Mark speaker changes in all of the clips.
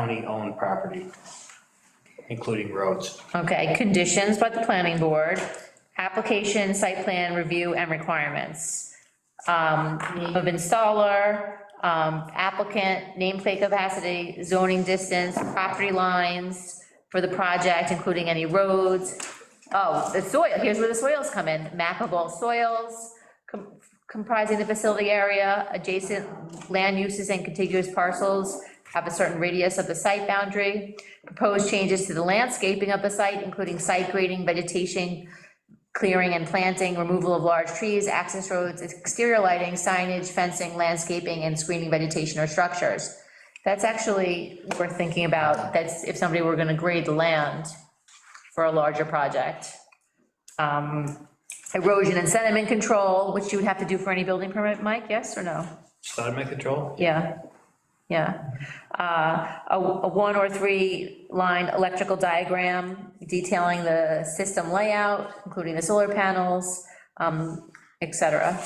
Speaker 1: county-owned property, including roads.
Speaker 2: Okay, conditions by the planning board, application, site plan review and requirements. Um, name of installer, um, applicant, nameplate capacity, zoning distance, property lines for the project, including any roads. Oh, the soil, here's where the soils come in, map of all soils, com- comprising the facility area, adjacent land uses and contiguous parcels have a certain radius of the site boundary, proposed changes to the landscaping of the site, including site grading, vegetation, clearing and planting, removal of large trees, access roads, exterior lighting, signage, fencing, landscaping, and screening vegetation or structures. That's actually worth thinking about, that's if somebody were gonna grade the land for a larger project. Um, Erosion and sediment control, which you would have to do for any building permit, Mike, yes or no?
Speaker 1: Sediment control?
Speaker 2: Yeah, yeah. Uh, A a one or three line electrical diagram detailing the system layout, including the solar panels, um, et cetera.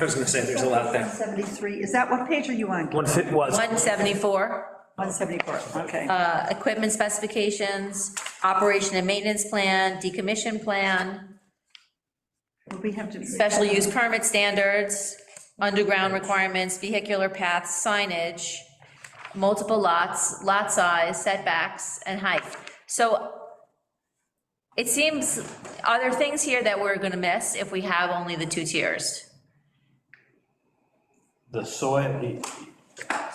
Speaker 3: I was gonna say, there's a lot there.
Speaker 4: 173, is that, what page are you on?
Speaker 3: One fit was,
Speaker 2: 174,
Speaker 4: 174, okay.
Speaker 2: uh, equipment specifications, operation and maintenance plan, decommission plan,
Speaker 4: We have to,
Speaker 2: special use permit standards, underground requirements, vehicular paths, signage, multiple lots, lot size, setbacks, and height. So it seems, are there things here that we're gonna miss if we have only the two tiers?
Speaker 1: The soil, the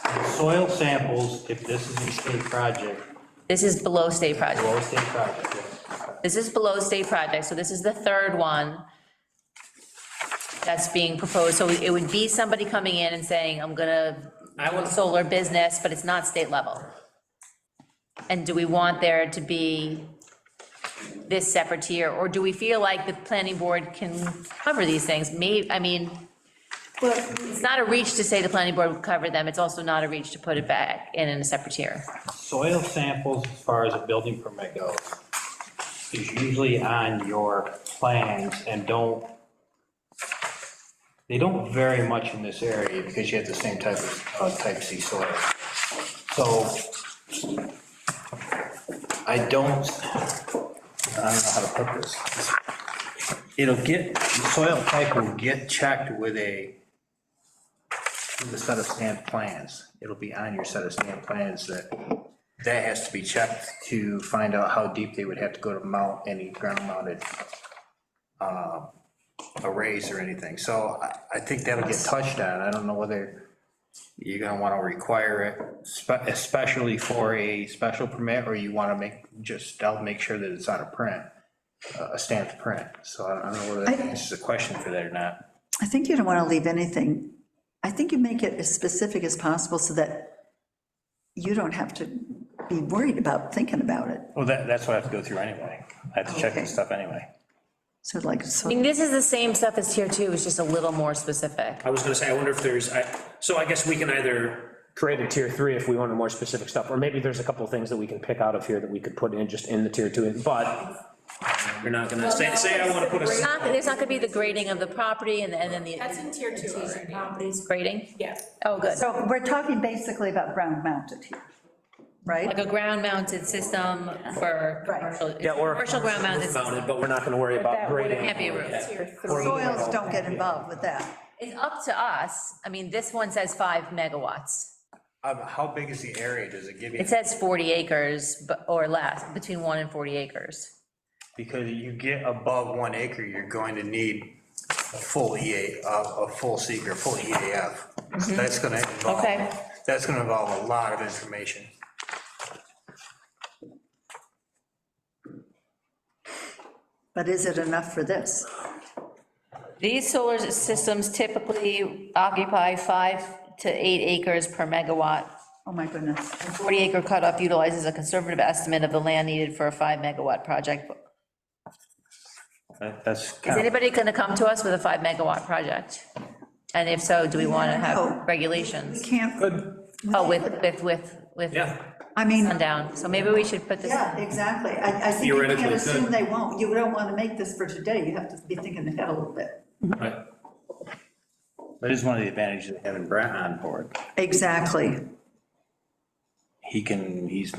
Speaker 1: the soil samples, if this is a state project,
Speaker 2: This is below state project.
Speaker 1: or a state project, yes.
Speaker 2: This is below state project, so this is the third one that's being proposed. So it would be somebody coming in and saying, I'm gonna, I want solar business, but it's not state level. And do we want there to be this separate tier, or do we feel like the planning board can cover these things? May, I mean,
Speaker 4: well,
Speaker 2: it's not a reach to say the planning board would cover them, it's also not a reach to put it back in in a separate tier.
Speaker 1: Soil samples, as far as a building permit goes, is usually on your plans and don't, they don't vary much in this area because you have the same type of, uh, type C soil. So I don't, I don't know how to put this. It'll get, the soil type will get checked with a, with a set of stamped plans. It'll be on your set of stamped plans that, that has to be checked to find out how deep they would have to go to mount any ground mounted uh, arrays or anything. So I, I think that'll get touched on. I don't know whether you're gonna wanna require it, spe- especially for a special permit, or you wanna make, just, I'll make sure that it's on a print, a stamped print. So I don't know whether that
Speaker 4: I-
Speaker 1: answers the question for that or not.
Speaker 4: I think you don't want to leave anything. I think you make it as specific as possible so that you don't have to be worried about thinking about it.
Speaker 3: well, that, that's what I have to go through anyway. I have to check this stuff anyway.
Speaker 4: So like, so
Speaker 2: I mean, this is the same stuff as tier two, it's just a little more specific.
Speaker 5: I was gonna say, I wonder if there's, I, so I guess we can either,
Speaker 6: create a tier three if we wanted more specific stuff, or maybe there's a couple of things that we can pick out of here that we could put in, just in the tier two, but
Speaker 5: you're not gonna say, say I wanna put
Speaker 2: It's
Speaker 5: a,
Speaker 2: not, there's not gonna be the grading of the property and and then the.
Speaker 7: That's in tier two already. Um,
Speaker 2: Properties grading?
Speaker 7: Yeah.
Speaker 2: Oh, good.
Speaker 4: so we're talking basically about ground mounted here,
Speaker 2: Like
Speaker 4: right?
Speaker 2: a ground mounted system for
Speaker 4: Right.
Speaker 2: commercial.
Speaker 6: Yeah, or-
Speaker 2: Commercial ground mounted system.
Speaker 5: mounted, but
Speaker 6: we're not gonna worry about grading.
Speaker 2: Can't be a roof.
Speaker 7: Tier three.
Speaker 4: Soils don't get involved with that.
Speaker 2: It's up to us. I mean, this one says five megawatts.
Speaker 1: Um, How big is the area? Does it give you?
Speaker 2: It says 40 acres bu- or less, between one and 40 acres.
Speaker 1: Because you get above one acre, you're going to need a full EA, a, a full seeker, a full EAF. So That's gonna involve,
Speaker 2: Mm-hmm. Okay.
Speaker 1: that's gonna involve a lot of information.
Speaker 4: But is it enough for this?
Speaker 2: These solar systems typically occupy five to eight acres per megawatt.
Speaker 4: Oh, my goodness.
Speaker 2: 40 acre cutoff utilizes a conservative estimate of the land needed for a five megawatt project.
Speaker 3: That- That's
Speaker 2: Is
Speaker 3: kind of,
Speaker 2: anybody going to come to us with a five megawatt project? And if so, do we want to
Speaker 4: No.
Speaker 2: have regulations?
Speaker 4: Can't,
Speaker 2: Oh, with, with, with, with
Speaker 5: yeah.
Speaker 4: I mean,
Speaker 2: sundown, so maybe we should put this,
Speaker 4: yeah, exactly. I, I think you can't
Speaker 5: Theoretically, it
Speaker 4: assume
Speaker 5: could.
Speaker 4: they won't. You don't want to make this for today. You have to be thinking ahead a little bit.
Speaker 5: Right.
Speaker 3: that is one of the advantages of having Brent on board.
Speaker 4: Exactly.
Speaker 3: he can, he's